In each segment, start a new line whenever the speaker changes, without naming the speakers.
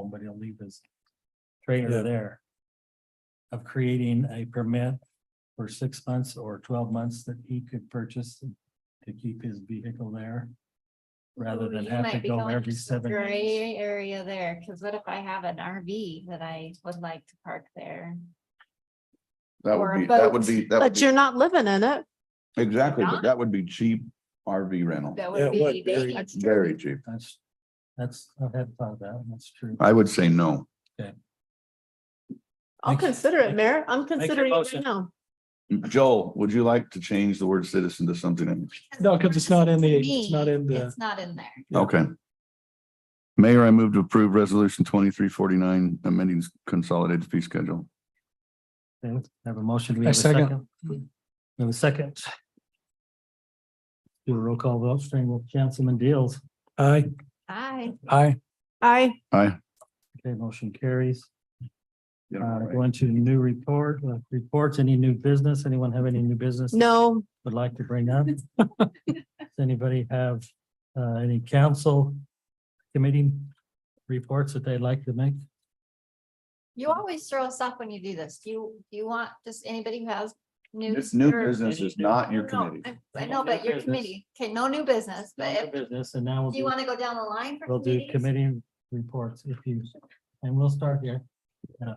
home, but he'll leave his trailer
Yeah.
there. Of creating a permit for six months or twelve months that he could purchase to keep his vehicle there. Rather
Ooh,
than
you
have to
might be
go
going
every
to some
seven. days.
Gray area there, cause what if I have an RV that I would like to park there?
That
or
would
a
be, that would
boat.
be, that would
But you're
be,
not living in it.
exactly, but
not.
that would be cheap RV rental.
That
Yeah,
would
what
be.
area?
dangerous.
Very cheap.
That's, that's, I hadn't thought of that, that's true.
I would say no.
I'll
Make-
consider it, Mayor. I'm
your
considering it
motion.
right now.
Joel, would you like to change the word citizen to something? else?
No, because it's not in the,
To
it's not
me,
in the,
It's not in there.
Yeah.
Okay. Mayor, I move to approve resolution twenty-three forty-nine, amending consolidated fee schedule.
Okay, Have a motion. Do we
I
have a
second.
second? And a second. Do a roll call vote, starting with Councilman Deals.
aye,
Aye.
aye,
I,
Aye.
Okay, motion carries.
Get it
Uh,
right.
going to new report, uh, reports, any new business? Anyone have any new business?
no,
Would like to bring up? Does anybody have, uh, any council committee reports that they'd like to make?
You always throw us off when you do this. Do you, do you want just anybody who has new?
This new
or-
business is not your
No, no,
committee.
I- I know, but your
Business.
committee, okay, no new business, but
No
if,
Business, and now we'll
do you
do,
wanna go down the line for
we'll do
committees?
committee reports if you, and we'll start here. Yeah.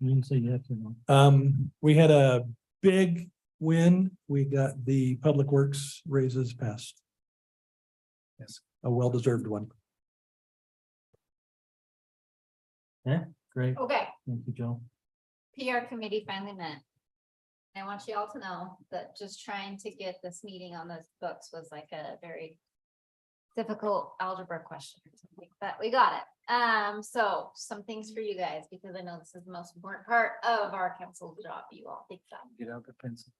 You can say yes or no.
um, we had a big win. We got the public works raises passed. Yes, a well-deserved one.
Great,
Okay,
thank you, Joe.
PR committee finally met. I want you all to know that just trying to get this meeting on those books was like a very difficult algebra question, or something, but we got it. Um, so some things for you guys, because I know this is the most important part of our council job, you all think that.
Get out the pencil.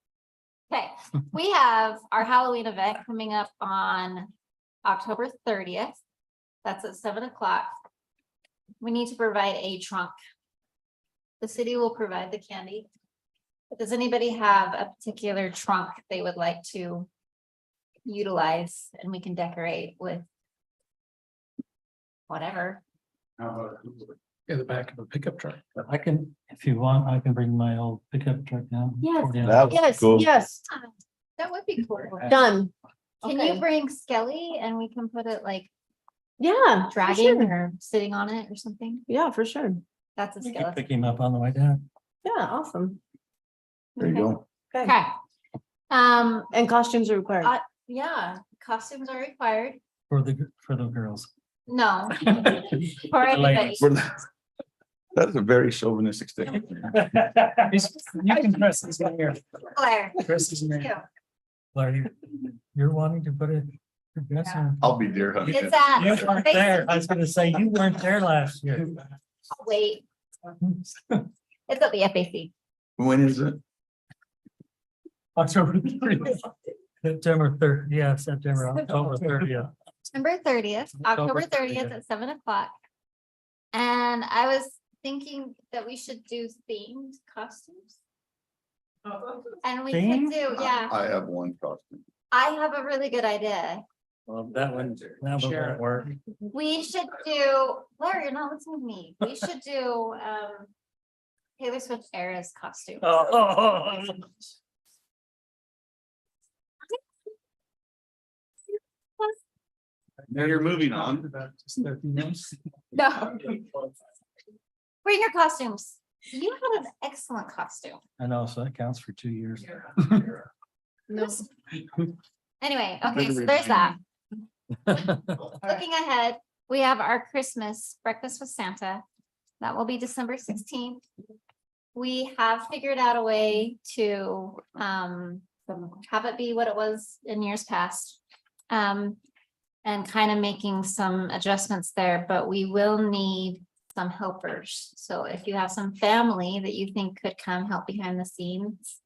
Okay, we have our Halloween event coming up on October thirtieth. That's at seven o'clock. We need to provide a trunk. The city will provide the candy. But Does anybody have a particular trunk they would like to utilize and we can decorate with whatever?
Yeah, the back of a pickup truck.
I can, if you want, I can bring my old pickup truck down.
Yes.
That was
yes,
cool.
yes,
That would be cool.
done.
Can
Okay.
you bring Skelly and we can put it like
Yeah. for
dragging
sure.
or sitting on it or something?
Yeah, for sure.
That's a
You can
skeleton.
pick him up on the way down.
Yeah, awesome.
There you
Okay.
go.
Okay.
Okay. Um,
And costumes are required.
Uh, yeah, costumes are required.
For the, gir- for the girls.
No, for
For the
everybody.
ladies.
For the- That's a very chauvinistic statement.
You can press this one here.
Claire,
Press this one
you.
Larry, you're- you're wanting to put it. your dress on.
I'll be deer hunting.
It's at.
You weren't there. I was gonna say, you weren't there last year.
Oh, Wait, it's at the FAC.
When is it?
October 30th. September third, yeah, September, October thirtieth.
September thirtieth,
October
October thirtieth
30th.
at seven o'clock. And I was thinking that we should do themed costumes. Uh, And we could
Themed?
do, yeah,
I have one costume.
I have a really good idea.
Well, that one, that one won't work.
We should do, Larry, you're not listening to me. We should do, um, Taylor Swift era's costume.
Oh, oh, oh, oh.
Now you're moving on.
No, bring your costumes. You had an excellent costume.
I know, so that counts for two years.
Anyway,
Good
okay, so there's
reminder.
that. Looking ahead, we have our Christmas breakfast with Santa. That will be December sixteenth. We have figured out a way to um have it be what it was in years past. Um, and kind of making some adjustments there, but we will need some helpers. So if you have some family that you think could come help behind the scenes,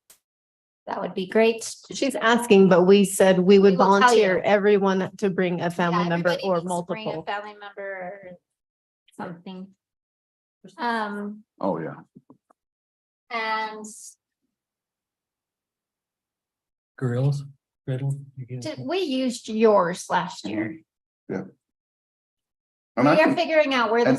that would be great.
She's asking, but we said we would
We will tell you.
volunteer everyone to bring a family
Yeah,
member
everybody
or
needs to bring a
multiple.
Family member or something. Um,
Oh, yeah.
and
Girls, griddle. you get it.
did, we used yours last year.
Yeah.
We
And I
are
can
figuring out where the
and-